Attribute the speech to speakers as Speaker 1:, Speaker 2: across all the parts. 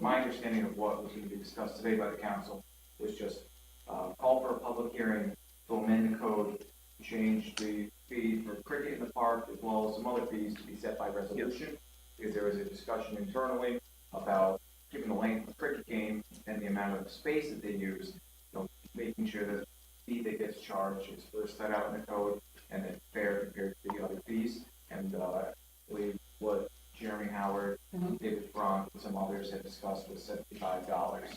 Speaker 1: my understanding of what was going to be discussed today by the council was just, uh, call for a public hearing to amend the code, change the fee for cricket in the park, as well as some other fees to be set by resolution. Because there was a discussion internally about given the length of cricket game and the amount of space that they use, you know, making sure that the fee that gets charged is first set out in the code and then fair compared to the other fees. And, uh, I believe what Jeremy Howard,
Speaker 2: Mhm.
Speaker 1: David Frank, and some others had discussed was seventy-five dollars.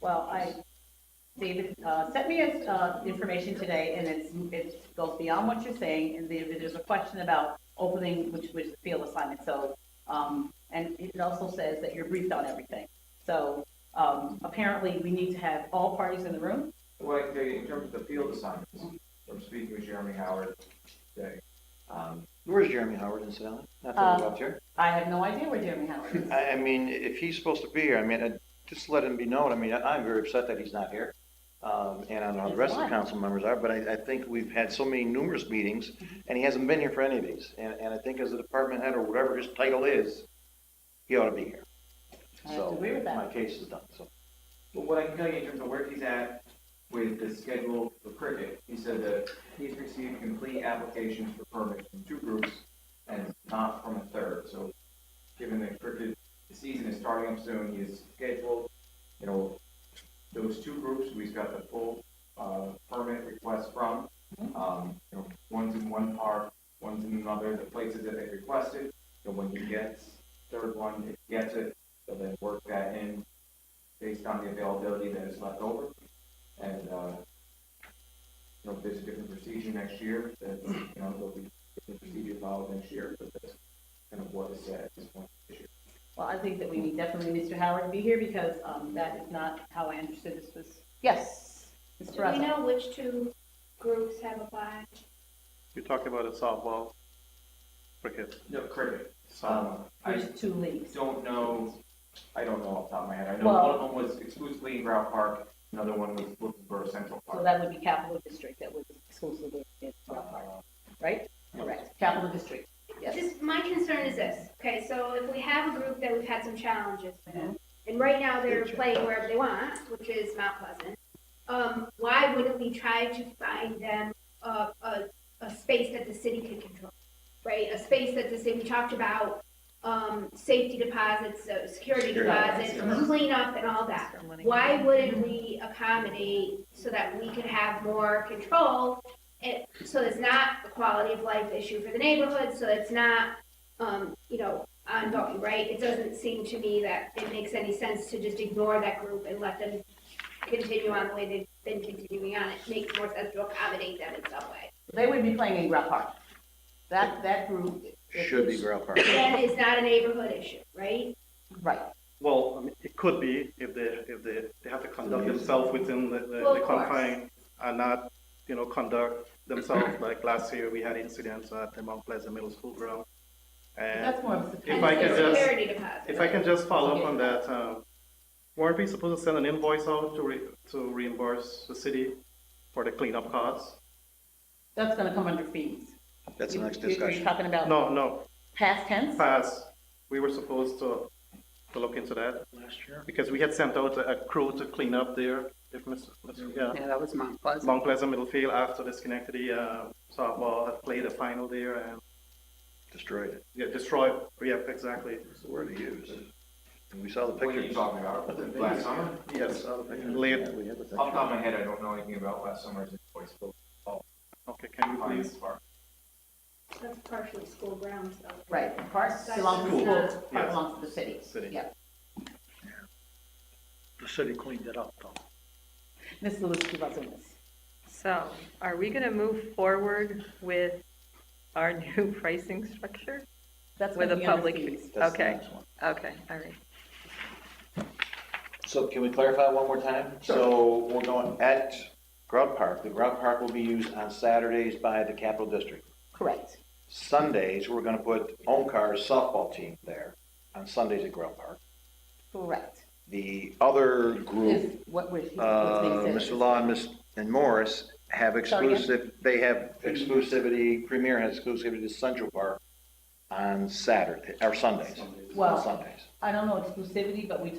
Speaker 2: Well, I, David, uh, sent me his, uh, information today, and it's, it goes beyond what you're saying, and there, there's a question about opening, which, which is field assignment, so, um, and it also says that you're briefed on everything. So, um, apparently, we need to have all parties in the room,
Speaker 1: Well, the- in terms of the field assignments, from speaking with Jeremy Howard today, um,
Speaker 3: Where's Jeremy Howard incidentally? Not that
Speaker 2: Um,
Speaker 3: he's up here.
Speaker 2: I have no idea where Jeremy Howard is.
Speaker 3: I, I mean, if he's supposed to be here, I mean, uh, just let him be known. I mean, I- I'm very upset that he's not here. Um, and I don't know how the rest of the
Speaker 2: Why?
Speaker 3: council members are, but I, I think we've had so many numerous meetings
Speaker 2: Mm-hmm.
Speaker 3: and he hasn't been here for any of these. And, and I think as a department head or whatever his title is, he ought to be here.
Speaker 2: I have to agree with
Speaker 3: So my
Speaker 2: that.
Speaker 3: case is done, so.
Speaker 1: but what I can tell you in terms of where he's at with the schedule for cricket, he said that he's received complete applications for permits from two groups and not from a third, so given that cricket season is starting up soon, he is scheduled, you know, those two groups, we've got the full, uh, permit request from, um, you know, one's in one park, one's in another, the places that they requested, so when he gets third one, if he gets it, they'll then work that in based on the availability that is left over, and, uh, you know, if there's a different procedure next year, then, you know, there'll be different procedure followed next year, but that's kind of what is said at this point this year.
Speaker 2: Well, I think that we need definitely Mr. Howard to be here, because, um, that is not how I understood this was, yes, Mr.
Speaker 4: Do we
Speaker 2: Russell.
Speaker 4: know which two groups have applied?
Speaker 5: You're talking about a softball for kids.
Speaker 1: No, cricket.
Speaker 5: So
Speaker 1: Um, I
Speaker 2: There's two leagues.
Speaker 1: don't know, I don't know off the top of my head. I know one of them was exclusively in Grout Park, another one was looking for Central
Speaker 2: So
Speaker 1: Park.
Speaker 2: that would be capital district that would exclusively be in Rock Park,
Speaker 1: Uh,
Speaker 2: right? Correct, capital district, yes.
Speaker 4: Just, my concern is this, okay, so if we have a group that we've had some challenges
Speaker 2: Mhm.
Speaker 4: with, and right now they're playing wherever they want, which is Mount Pleasant, um, why wouldn't we try to find them a, a, a space that the city could control? Right, a space that the city, we talked about, um, safety deposits, uh, security
Speaker 3: Security
Speaker 4: deposits,
Speaker 1: deposits.
Speaker 4: cleanup and all that. Why wouldn't we accommodate so that we could have more control? And so it's not a quality of life issue for the neighborhood, so it's not, um, you know, ongoing, right? It doesn't seem to me that it makes any sense to just ignore that group and let them continue on the way they've been continuing on. It makes more sense to accommodate them in some way.
Speaker 2: They would be playing in Rock Park. That, that group. is-
Speaker 3: Should be Grail Park.
Speaker 4: That is not a neighborhood issue, right?
Speaker 2: Right,
Speaker 5: Well, I mean, it could be if they, if they, they have to conduct
Speaker 3: Yeah.
Speaker 5: themselves within the, the-
Speaker 4: Well,
Speaker 5: the
Speaker 4: of course.
Speaker 5: confine and not, you know, conduct themselves like last year, we had incidents at the Mount Pleasant Middle School ground.
Speaker 2: But
Speaker 5: And
Speaker 2: that's more of a.
Speaker 5: If I
Speaker 4: And
Speaker 5: could
Speaker 4: the
Speaker 5: just-
Speaker 4: Security deposit.
Speaker 5: if I can just follow up on that, um, weren't we supposed to send an invoice out to re, to reimburse the city for the cleanup costs?
Speaker 2: That's gonna come under fees.
Speaker 3: That's the next
Speaker 2: You- you- You're
Speaker 3: discussion.
Speaker 2: talking about
Speaker 5: No, no,
Speaker 2: past tense?
Speaker 5: pass, we were supposed to, to look into that.
Speaker 3: Last year.
Speaker 5: Because we had sent out a a crew to clean up there, if Mr. Mr. Yeah,
Speaker 6: Yeah, that was Mount Pleasant.
Speaker 5: Mount Pleasant Middlefield after the Schenectady uh, softball had played a final there and
Speaker 3: Destroyed it.
Speaker 5: yeah, destroyed. Yeah, exactly.
Speaker 3: That's the word to use. And we saw the
Speaker 1: What are you
Speaker 3: pictures.
Speaker 1: talking about? Last summer?
Speaker 5: Yes, uh,
Speaker 3: Yeah,
Speaker 5: late.
Speaker 3: we
Speaker 1: Off
Speaker 3: had the
Speaker 1: the
Speaker 3: pictures.
Speaker 1: top of my head, I don't know anything about last summer's invoice, but
Speaker 5: Okay, can you
Speaker 1: Pines
Speaker 5: please?
Speaker 1: Park.
Speaker 4: That's partially school grounds though.
Speaker 2: Right, park belongs to
Speaker 4: Cool.
Speaker 2: schools, park
Speaker 5: Yes.
Speaker 2: belongs to the city.
Speaker 5: City.
Speaker 2: Yeah.
Speaker 7: The city cleaned it up, though.
Speaker 2: Ms. Lewinsky was in this.
Speaker 8: So are we going to move forward with our new pricing structure?
Speaker 2: That's
Speaker 8: With
Speaker 2: gonna
Speaker 8: a
Speaker 2: be under
Speaker 8: public
Speaker 2: fees.
Speaker 3: That's the
Speaker 8: Okay.
Speaker 3: next one.
Speaker 8: Okay, all right.
Speaker 3: So can we clarify one more time? So we're going at Grout Park, the Grout Park will be used on Saturdays by the Capital District.
Speaker 2: Correct,
Speaker 3: Sundays, we're gonna put Onkar's softball team there on Sundays at Grout Park.
Speaker 2: correct.
Speaker 3: The other group,
Speaker 2: Is what we're,
Speaker 3: uh,
Speaker 2: what's being
Speaker 3: Mr.
Speaker 2: said.
Speaker 3: Law and Ms. and Morris have
Speaker 2: Sorry, again?
Speaker 3: exclusive, they have exclusivity, Premier has exclusivity to Central Park on Saturday, or Sundays. on
Speaker 2: Well-
Speaker 3: Sundays.
Speaker 2: I don't know exclusivity, but we